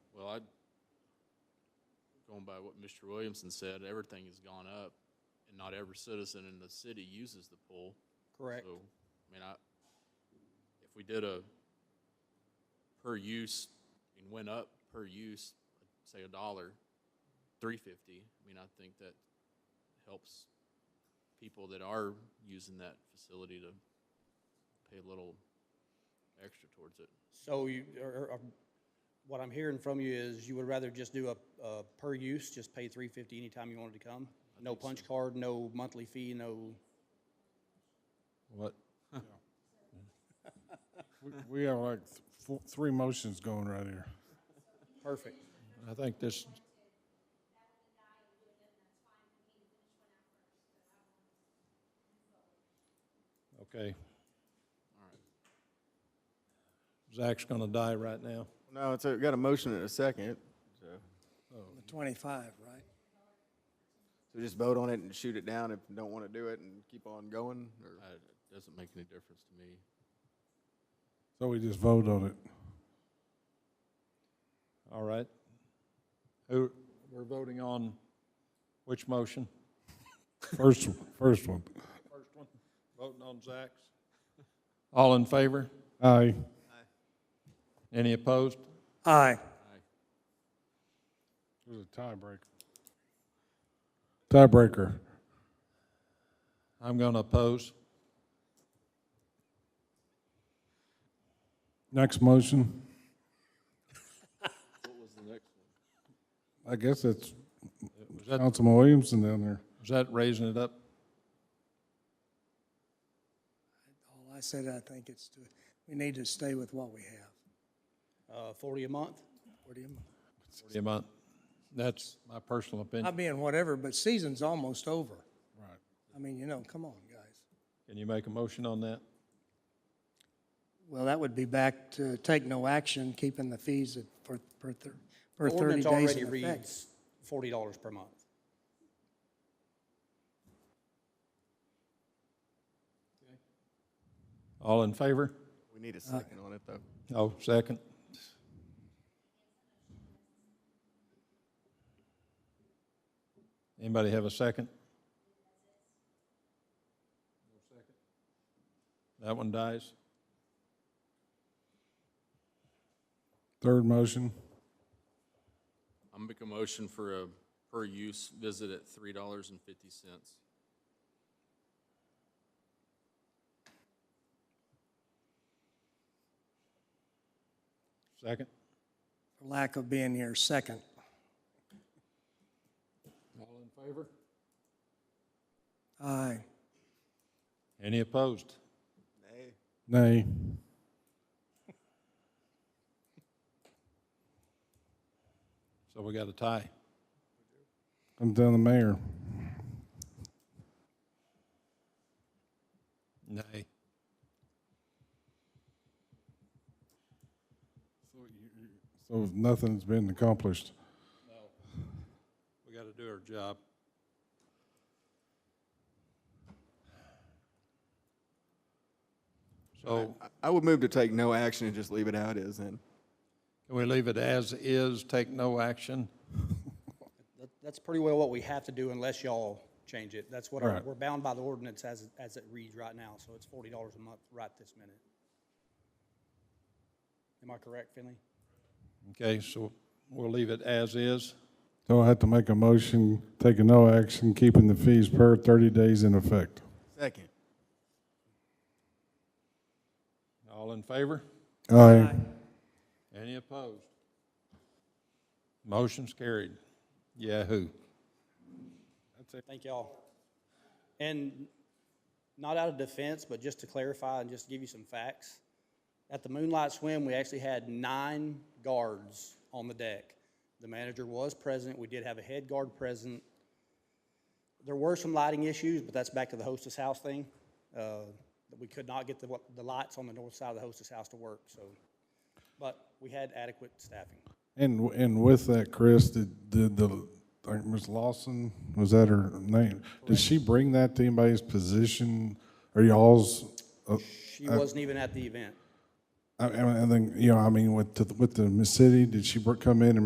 going by what Mr. Williamson said, everything has gone up, and not every citizen in the city uses the pool. Correct. So, I mean, I, if we did a per use, and went up per use, say a dollar, three fifty, I mean, I think that helps people that are using that facility to pay a little extra towards it. So you, or, or, what I'm hearing from you is you would rather just do a, a per use, just pay three fifty anytime you wanted to come? No punch card, no monthly fee, no, What? We- We have like th- four, three motions going right here. perfect. I think this, okay. Zach's gonna die right now. No, it's, a- got a motion and a second, so, The 25, right? so just vote on it and shoot it down if you don't want to do it and keep on going, or? I- It doesn't make any difference to me. So we just vote on it. All right. Who, we're voting on which motion? First, first one. First one, voting on Zach's. All in favor? Aye. Any opposed? Aye. It was a tiebreaker. Tiebreaker. I'm going to oppose. Next motion, What was the next one? I guess that's Was that, Councilman Williamson down there. was that raising it up? All I said, I think it's, to- we need to stay with what we have. Uh, forty a month? What do you, Forty a month. That's my personal I opinion. mean, whatever, but season's almost over. Right. I mean, you know, come on, guys. Can you make a motion on that? Well, that would be back to take no action, keeping the fees at- for, for thir- for 30 Ordinance days already in effect. reads forty dollars per month. All in favor? We need a second on it, though. Oh, second. Anybody have a second? That one dies. Third motion, I'm making a motion for a per-use visit at three dollars and fifty cents. Second. For lack of being here, second. All in favor? Aye. Any opposed? nay. So we got a tie. Comes down to the mayor. Nay. So nothing's been accomplished. We got to do our job. So I- I would move to take no action and just leave it how it is then. can we leave it as is, take no action? That, that's pretty well what we have to do unless y'all change it. That's what, our- Right. we're bound by the ordinance as, as it reads right now, so it's forty dollars a month right this minute. Am I correct, Finley? Okay, so we'll leave it as is. So I had to make a motion, taking no action, keeping the fees per thirty days in effect. Second. All in favor? Aye. Any opposed? Motion's carried. Yahoo. Thank y'all. And not out of defense, but just to clarify and just give you some facts. At the Moonlight Swim, we actually had nine guards on the deck. The manager was present. We did have a head guard present. There were some lighting issues, but that's back to the hostess house thing. Uh, that we could not get the, what- the lights on the north side of the hostess house to work, so. But we had adequate staffing. And, and with that, Chris, did, did the, I think Ms. Lawson, was that her name? Did she bring that to anybody's position or y'all's? uh, She wasn't even at the event. I, I think, you know, I mean, with, the- with the city, did she br- come in and